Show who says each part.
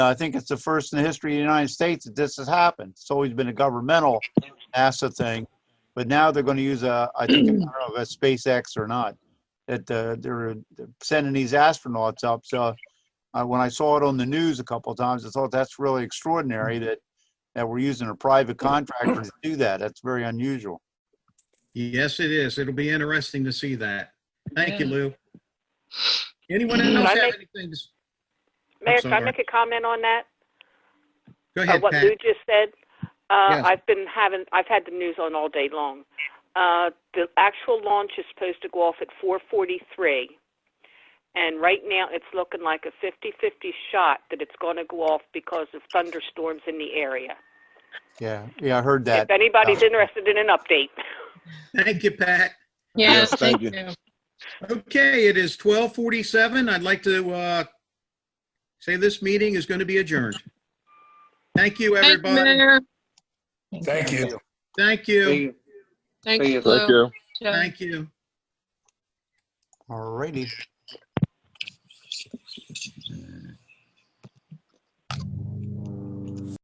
Speaker 1: I think it's the first in the history of the United States that this has happened. It's always been a governmental NASA thing, but now they're going to use a, I think, I don't know if it's SpaceX or not, that uh, they're they're sending these astronauts up. So uh, when I saw it on the news a couple of times, I thought that's really extraordinary that that we're using a private contractor to do that. That's very unusual.
Speaker 2: Yes, it is. It'll be interesting to see that. Thank you,
Speaker 3: Yeah.
Speaker 2: Lou. Anyone
Speaker 4: Mhm.
Speaker 2: else
Speaker 4: Mm. I
Speaker 2: have
Speaker 4: make-
Speaker 2: anything? to s-
Speaker 4: Mayor, can I
Speaker 2: sorry.
Speaker 4: make a comment on that?
Speaker 2: Go
Speaker 4: Uh,
Speaker 2: ahead,
Speaker 4: what Lou
Speaker 2: Pat.
Speaker 4: just said? Uh,
Speaker 2: Yes.
Speaker 4: I've been having, I've had the news on all day long. Uh, the actual launch is supposed to go off at 4:43, and right now it's looking like a 50-50 shot that it's going to go off because of thunderstorms in the area.
Speaker 1: Yeah, yeah, I heard that.
Speaker 4: if anybody's
Speaker 1: uh,
Speaker 4: interested in an update.
Speaker 2: Thank you, Pat.
Speaker 3: Yes,
Speaker 5: Yes, thank
Speaker 3: thank
Speaker 5: you.
Speaker 3: you.
Speaker 2: Okay, it is 12:47. I'd like to uh, say this meeting is going to be adjourned. Thank you,
Speaker 3: Thank you,
Speaker 2: everybody.
Speaker 3: Mayor.
Speaker 6: Thank you.
Speaker 2: Thank you.
Speaker 6: you.
Speaker 3: Thank
Speaker 6: Thank
Speaker 3: you,
Speaker 5: Thank
Speaker 3: Lou.
Speaker 5: you.
Speaker 3: Joe.
Speaker 2: Thank you.
Speaker 1: All righty.